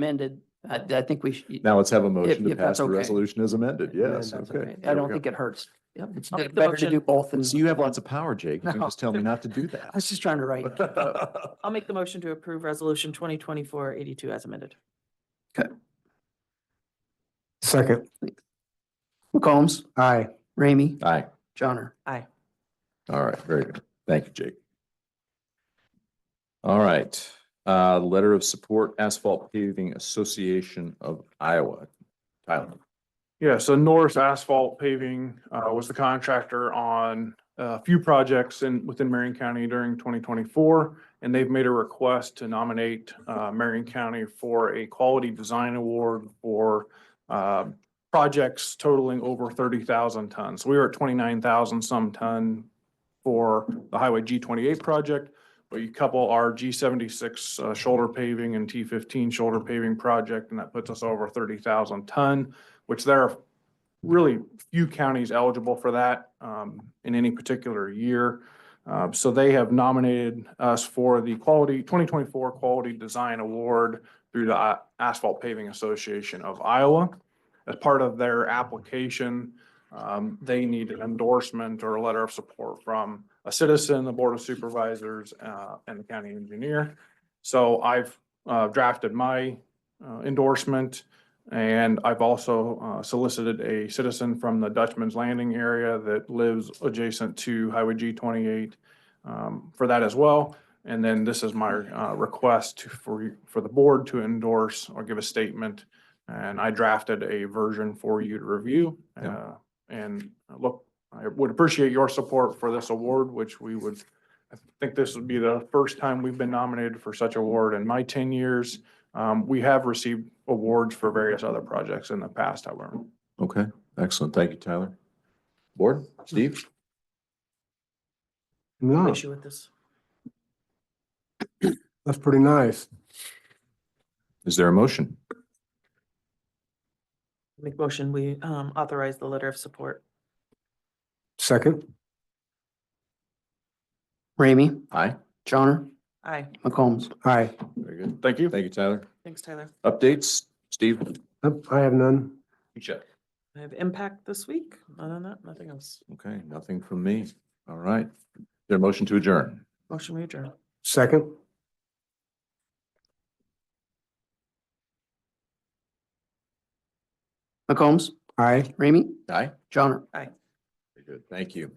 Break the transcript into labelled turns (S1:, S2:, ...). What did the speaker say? S1: amended, I, I think we should.
S2: Now let's have a motion to
S1: if that's
S2: pass the
S1: okay.
S2: resolution as amended. Yes,
S3: that's
S2: okay.
S3: okay.
S2: There
S1: I
S2: we
S1: don't
S2: go.
S1: think it hurts. Yep, it's
S3: I'll make the
S1: better to do
S3: motion.
S1: both than,
S2: So you have lots of power, Jake. You can just tell me not to do
S1: I was just trying to write.
S2: that.
S3: I'll make the motion to approve resolution 2024-82 as amended.
S4: Second,
S1: McCombs,
S4: aye.
S1: Ramey,
S2: Aye.
S1: Johnner.
S2: All right, very good. Thank you, Jake. All right, uh, letter of support Asphalt Paving Association of Iowa. Tyler.
S5: Yeah, so Norris Asphalt Paving uh, was the contractor on a few projects in, within Marion County during twenty twenty-four. And they've made a request to nominate uh, Marion County for a Quality Design Award for uh, projects totaling over thirty thousand tons. We were at twenty-nine thousand some ton for the Highway G twenty-eight project. But you couple our G seventy-six uh, shoulder paving and T fifteen shoulder paving project, and that puts us over thirty thousand ton which there are really few counties eligible for that um, in any particular year. Uh, So they have nominated us for the Quality, 2024 Quality Design Award through the I- Asphalt Paving Association of Iowa. As part of their application, um, they need an endorsement or a letter of support from a citizen, the Board of Supervisors, uh, and the county engineer. So I've uh, drafted my uh, endorsement and I've also uh, solicited a citizen from the Dutchman's Landing area that lives adjacent to Highway G twenty-eight um, for that as well. And then this is my uh, request to- for, you- for the board to endorse or give a statement. And I drafted a version for you to review.
S2: Yeah.
S5: uh, And look, I would appreciate your support for this award, which we would, I think this would be the first time we've been nominated for such award in my ten years. Um, we have received awards for various other projects in the past, however.
S2: Okay, excellent. Thank you, Tyler. Board, Steve?
S3: No
S4: No,
S3: Issue with this.
S4: that's pretty nice.
S2: Is there a motion?
S3: Make motion, we um authorize the letter of support.
S4: Second,
S1: Ramey,
S2: Aye.
S1: Johnner,
S3: Aye.
S1: McCombs.
S4: aye.
S2: Very good.
S5: Thank you.
S2: Thank you, Tyler.
S3: Thanks, Tyler.
S2: Updates, Steve?
S4: Nope, I have none.
S3: I have impact this week. Other than that, nothing else.
S2: Okay, nothing from me. All right. Is There a motion to adjourn?
S3: Motion we adjourn.
S4: Second,
S1: McCombs,
S4: aye.
S1: Ramey,
S2: Aye.
S1: Johnner.
S2: Very good. Thank you.